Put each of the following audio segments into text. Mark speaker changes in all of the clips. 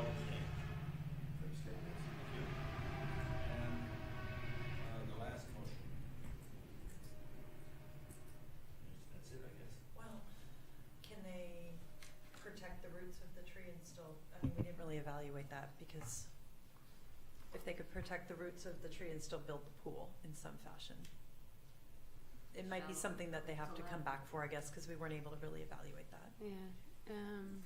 Speaker 1: uh,
Speaker 2: avoid that because if they could protect the roots of the tree and still build the pool in some fashion. It might be
Speaker 3: So,
Speaker 2: something that they have
Speaker 3: it's
Speaker 2: to
Speaker 3: a
Speaker 2: come
Speaker 3: lot.
Speaker 2: back for, I guess, because we weren't able to really evaluate that.
Speaker 4: Yeah, um,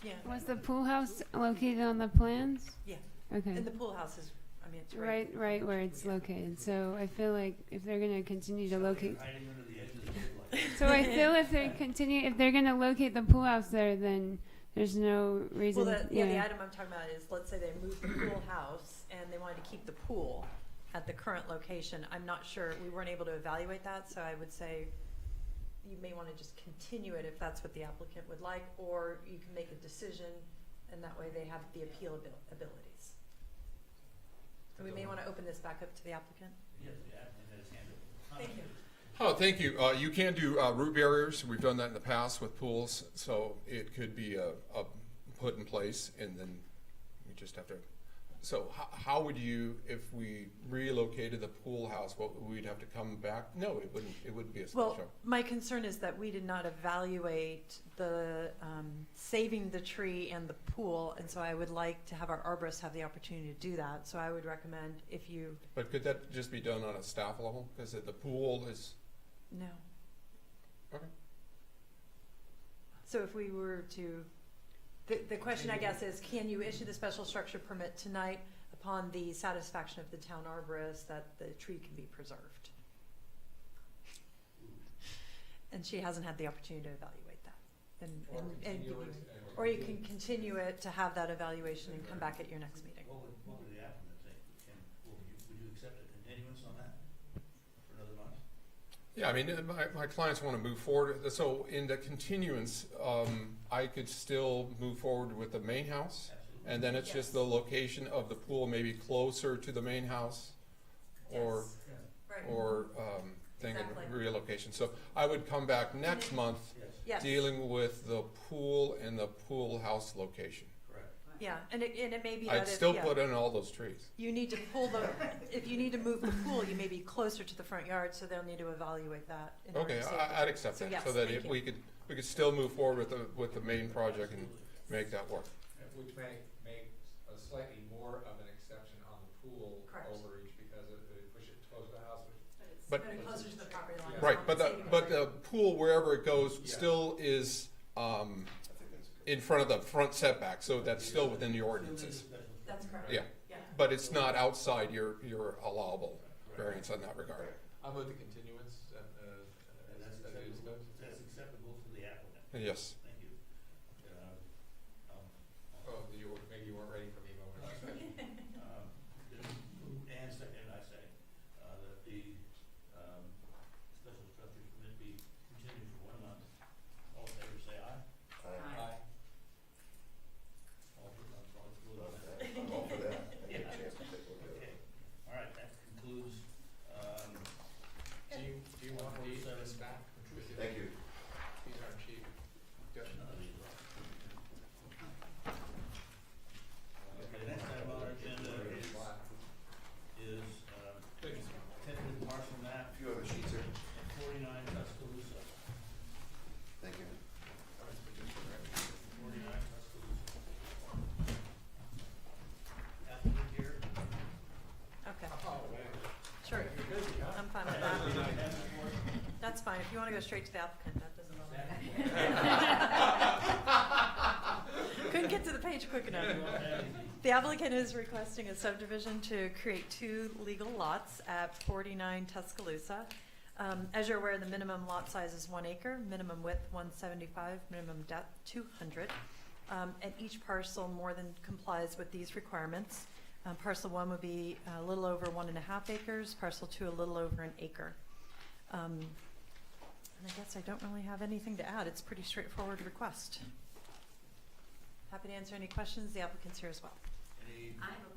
Speaker 2: Okay. Yeah,
Speaker 4: was the pool house located on the plans?
Speaker 2: Yeah.
Speaker 4: Okay,
Speaker 2: and the pool house is, I mean, it's right.
Speaker 4: Hmm. right, right where it's located, so I feel like if they're gonna continue to locate,
Speaker 1: Hiding under the edges of the light.
Speaker 4: so I feel if they continue, if they're gonna locate the pool house there, then there's no
Speaker 2: Well,
Speaker 4: reason,
Speaker 2: the, yeah, the
Speaker 4: yeah,
Speaker 2: item I'm talking about is, let's say they moved the pool house and they wanted to keep the pool at the current location. I'm not sure, we weren't able to evaluate that, so I would say you may want to just continue it if that's what the applicant would like, or you can make a decision and that way they have the appeal abil- abilities. So we may want to open this back up to the applicant.
Speaker 1: Yes, the applicant has handled it.
Speaker 2: Thank you.
Speaker 5: Oh, thank you. Uh, you can do uh, root barriers. We've done that in the past with pools, so it could be uh uh put in place, and then we just have to. So how, how would you, if we relocated the pool house, what we'd have to come back? No, it wouldn't. It wouldn't be a
Speaker 2: Well,
Speaker 5: special.
Speaker 2: my concern is that we did not evaluate the um, saving the tree and the pool, and so I would like to have our arborist have the opportunity to do that. So I would recommend if you,
Speaker 5: But could that just be done on a staff level? Because the pool is
Speaker 2: no.
Speaker 5: Okay.
Speaker 2: So if we were to, the, the question I guess is, can you issue the special structure permit tonight upon the satisfaction of the town arborist that the tree can be preserved? And she hasn't had the opportunity to evaluate that. and- and- and give you- Or you can continue it to have that evaluation and come back at your next meeting.
Speaker 1: What would, what would the applicant think? Can, will you, would you accept a continuance on that for another month?
Speaker 5: Yeah, I mean, uh, my, my clients want to move forward. So in the continuance, um, I could still move forward with the main house.
Speaker 1: Absolutely.
Speaker 5: And then it's
Speaker 2: Yes.
Speaker 5: just the location of the pool, maybe closer to the main house or, or, um, thing of
Speaker 2: Mm-hmm. Exactly.
Speaker 5: relocation. So I would come back next month
Speaker 1: Yes,
Speaker 2: Yes.
Speaker 5: dealing with the pool and the pool house location.
Speaker 1: correct.
Speaker 2: Yeah, and it, and it may be that
Speaker 5: I'd
Speaker 2: if,
Speaker 5: still
Speaker 2: yeah,
Speaker 5: put in all those trees.
Speaker 2: you need to pull the, if you need to move the pool, you may be closer to the front yard, so they'll need to evaluate that. in order
Speaker 5: Okay,
Speaker 2: to-
Speaker 5: I, I'd accept
Speaker 2: So
Speaker 5: that,
Speaker 2: yes,
Speaker 5: so that
Speaker 2: thank
Speaker 5: if
Speaker 2: you.
Speaker 5: we could, we could still move forward with the, with the main project and
Speaker 1: Absolutely.
Speaker 5: make that work.
Speaker 6: Which may make a slightly more of an exception on the pool
Speaker 2: Correct.
Speaker 6: overreach because of, they push it close to the house, which
Speaker 5: But-
Speaker 2: But closer to the property line.
Speaker 5: Right, but the,
Speaker 2: Saving
Speaker 5: but
Speaker 2: the-
Speaker 5: the pool, wherever it goes,
Speaker 6: Yeah.
Speaker 5: still is, um, in front of the front setback, so that's still within the ordinances.
Speaker 1: Still need a special
Speaker 2: That's correct.
Speaker 5: Yeah, but it's not outside your, your allowable variance on that regard.
Speaker 6: I'll move the continuance and, uh,
Speaker 1: And that's
Speaker 6: as it is
Speaker 1: acceptable,
Speaker 6: goes.
Speaker 1: that's acceptable to the applicant.
Speaker 5: Yes.
Speaker 1: Thank you. Uh, um,
Speaker 6: Oh, you, were- maybe you weren't ready for me, but when I said.
Speaker 1: Um, And second, I say, uh, that the, um, special structure permit be continued for one month. All in favor, say aye.
Speaker 6: Aye.
Speaker 1: All for, all for.
Speaker 7: All for that. I get a chance to take a look at it.
Speaker 1: Okay, all right, that concludes, um,
Speaker 6: Do you, do you want these, this back?
Speaker 7: Thank you.
Speaker 6: These aren't cheap.
Speaker 1: none of these. Okay, next item on our agenda is, is, um, tentative parcel map
Speaker 7: A few other sheets here.
Speaker 1: forty-nine Tuscaloosa,
Speaker 7: Thank you.
Speaker 1: forty-nine Tuscaloosa. Applicant here.
Speaker 2: Okay,
Speaker 6: Oh, man.
Speaker 2: sure,
Speaker 6: You're busy, huh?
Speaker 2: I'm fine with
Speaker 1: Applicant
Speaker 2: that.
Speaker 1: has the floor.
Speaker 2: That's fine, if you wanna go straight to the applicant, that doesn't bother me. Couldn't get to the page quick enough. The applicant is requesting a subdivision to create two legal lots at 49 Tuscaloosa. Um, As you're aware, the minimum lot size is one acre, minimum width 175, minimum depth 200. Um, And each parcel more than complies with these requirements. Uh, Parcel one would be a little over one and a half acres, parcel two a little over an acre. Um, And I guess I don't really have anything to add, it's a pretty straightforward request. Happy to answer any questions, the applicant's here as well.
Speaker 1: Any
Speaker 3: I have a